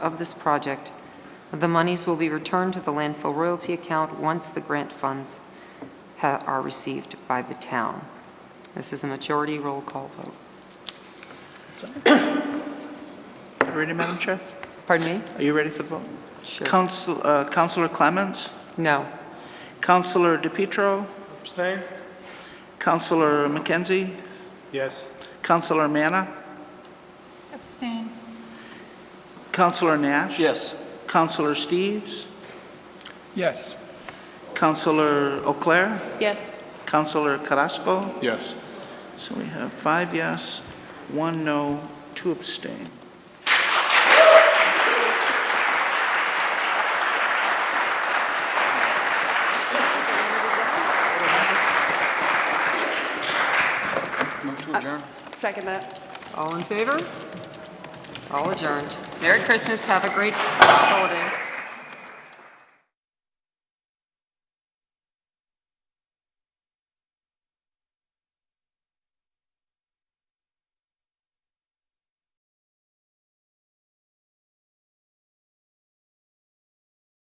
of this project. The monies will be returned to the landfill royalty account once the grant funds ha- are received by the town. This is a majority roll call vote. You Ready, Madam Chair? Pardon me? Are you ready for the vote? Sure. Council, uh, Councilor Clements, No. Councilor DePietro, Abstain? Councilor McKenzie, Yes. Councilor Manna, Abstain. Councilor Nash. Yes. Councilor Steves, Yes. Councilor O'Clair, Yes. Councilor Carrasco. Yes. So we have five yes, one no, two abstain. Move to adjourn. Second that. All in favor? All adjourned. Merry Christmas, have a great holiday.